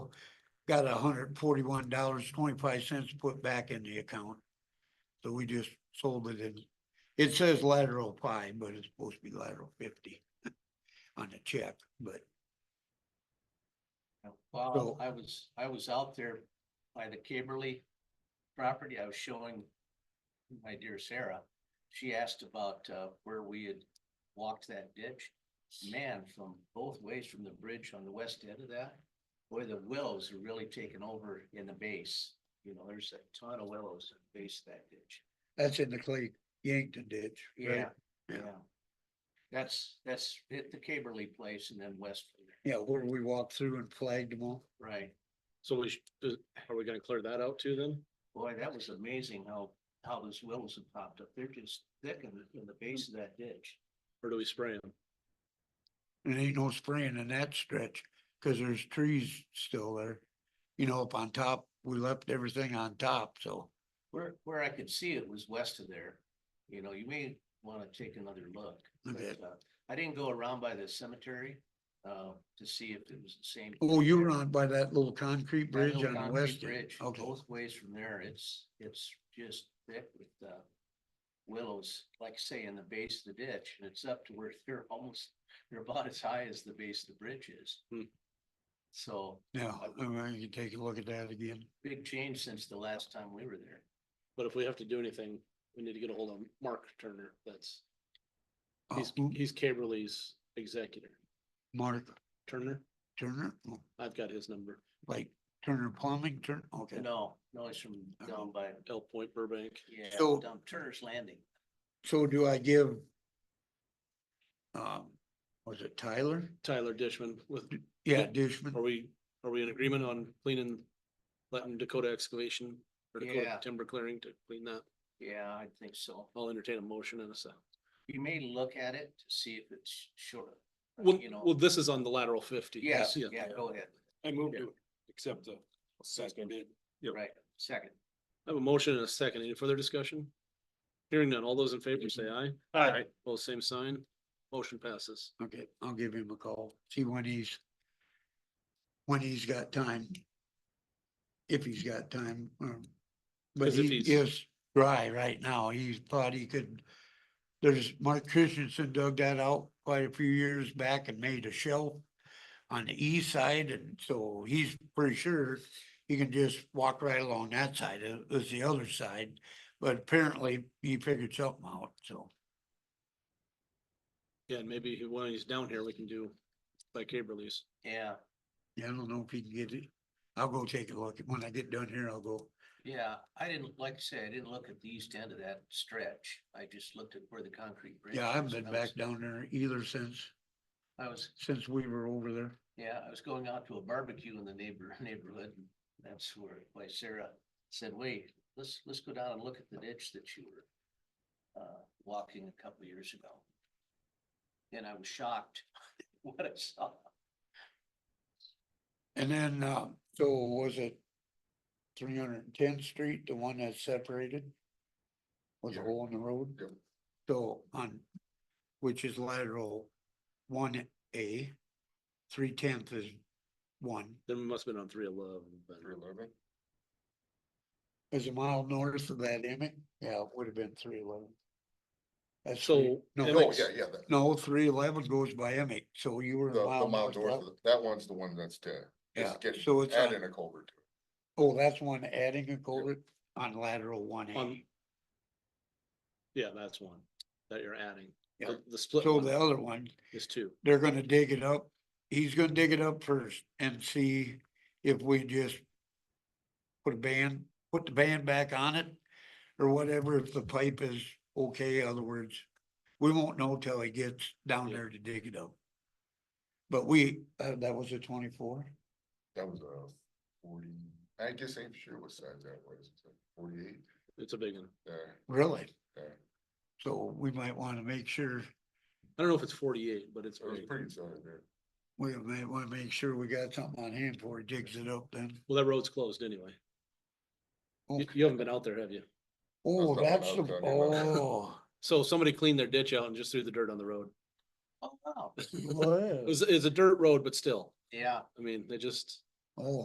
got hundred and forty-one dollars, twenty-five cents put back in the account. So we just sold it in, it says lateral five, but it's supposed to be lateral fifty on the check, but So- Well, I was, I was out there by the Kimberly property. I was showing my dear Sarah. She asked about uh where we had walked that ditch. Man, from both ways from the bridge on the west end of that, boy, the willows are really taking over in the base. You know, there's a ton of willows in the base of that ditch. that's in the Clay Yankton ditch. right? Yeah, Yeah. yeah. That's, that's hit the Kimberly place and then west from there, Yeah, where we walked through and flagged them all. right? So we should, are we gonna clear that out too then? Boy, that was amazing how, how those willows have popped up. They're just thick in the, in the base of that ditch. Or do we spray them? And ain't no spraying in that stretch, cause there's trees still there. You know, up on top, we left everything on top, so. Where, where I could see it was west of there. You know, you may wanna take another look. but, Okay. uh, I didn't go around by the cemetery, uh, to see if it was the same. Oh, you were on by that little concrete That bridge little on the concrete west end. bridge, Okay, Both ways from there, it's, it's just thick with, uh, willows, like say in the base of the ditch, and it's up to where they're almost, they're about as high as the base of the bridge is. Hmm. So, now, I mean, you take a look at that again. big change since the last time we were there. But if we have to do anything, we need to get a hold of Mark Turner. That's, Oh, he's, who- he's Caberly's executor. Mark Turner, Turner, Oh, I've got his number, like Turner Plumbing, Turner, okay. No, no, it's from down by, Elk Point Burbank. yeah, So- down Turner's Landing. So do I give? Um, was it Tyler? Tyler Dishman with, Yeah, Yeah. are Dishman, we, are we in agreement on cleaning, letting Dakota excavation or Dakota Yeah. timber clearing to clean that? Yeah, I think so. I'll entertain a motion in a second. You may look at it to see if it's short. Well, You know. well, this is on the lateral fifty. Yes, yeah, go ahead. I moved to accept the second bid. Yep. Right, second. I have a motion and a second. Any further discussion? Hearing none. All those in favor say aye. Aye. Both same sign. Motion passes. okay, I'll give him a call, see when he's. When he's got time. If he's got time, um, but 'Cause if he he's- is dry right now, he thought he could. There's, Mark Christensen dug that out quite a few years back and made a shelf. On the east side, and so he's pretty sure he can just walk right along that side, it was the other side. But apparently he figured something out, so. Yeah, and maybe he- when he's down here, we can do by cable release. Yeah, Yeah, I don't know if he can get it. I'll go take a look. When I get done here, I'll go. yeah. I didn't, like I said, I didn't look at the east end of that stretch. I just looked at where the concrete bridge. Yeah, I haven't is. been I back was- down there either since, I was, since we were over there. yeah, I was going out to a barbecue in the neighbor, neighborhood. and That's where, why Sarah said, wait, let's, let's go down and look at the ditch that you were uh, walking a couple years ago. And I was shocked what I saw. And then, uh, so was it three hundred and tenth street, the one that's separated? Was a Yeah. hole in the road? Yeah. So on, which is lateral one A, three tenth is one, Then we must have been on three eleven. is a mile north of that Emmett. Yeah, it would have been three eleven. That's three- So. no, Oh, Emmett's- yeah, yeah, that- No, three eleven goes by Emic, so you were. the, a the mile Mount north of Dorothy, that one's the one that's to, Yeah, is getting, so it's uh, adding on- a culvert to it. Oh, that's one adding a culvert on lateral one On- A. Yeah, that's one that you're adding. Yeah. The- The split So the one other one, is two. they're gonna dig it up. He's gonna dig it up first and see if we just put a band, put the band back on it or whatever, if the pipe is okay, other words. We won't know till he gets down Yeah. there to dig it up. But we, uh, that was a twenty-four. That was a forty, I guess I'm sure what size that was, forty-eight, It's a big one. uh, Really? uh, So we might wanna make sure, I don't know if it's forty-eight, but it's it was big. pretty solid there. we might wanna make sure we got something on hand before he digs it up then. Well, that road's closed anyway. You, Okay. you haven't been out there, have you? Oh, That's not what that's I the, was talking about. oh. So somebody cleaned their ditch out and just threw the dirt on the road. Oh, wow. It was, it's a dirt road, but still, Yeah. I mean, they just. Oh,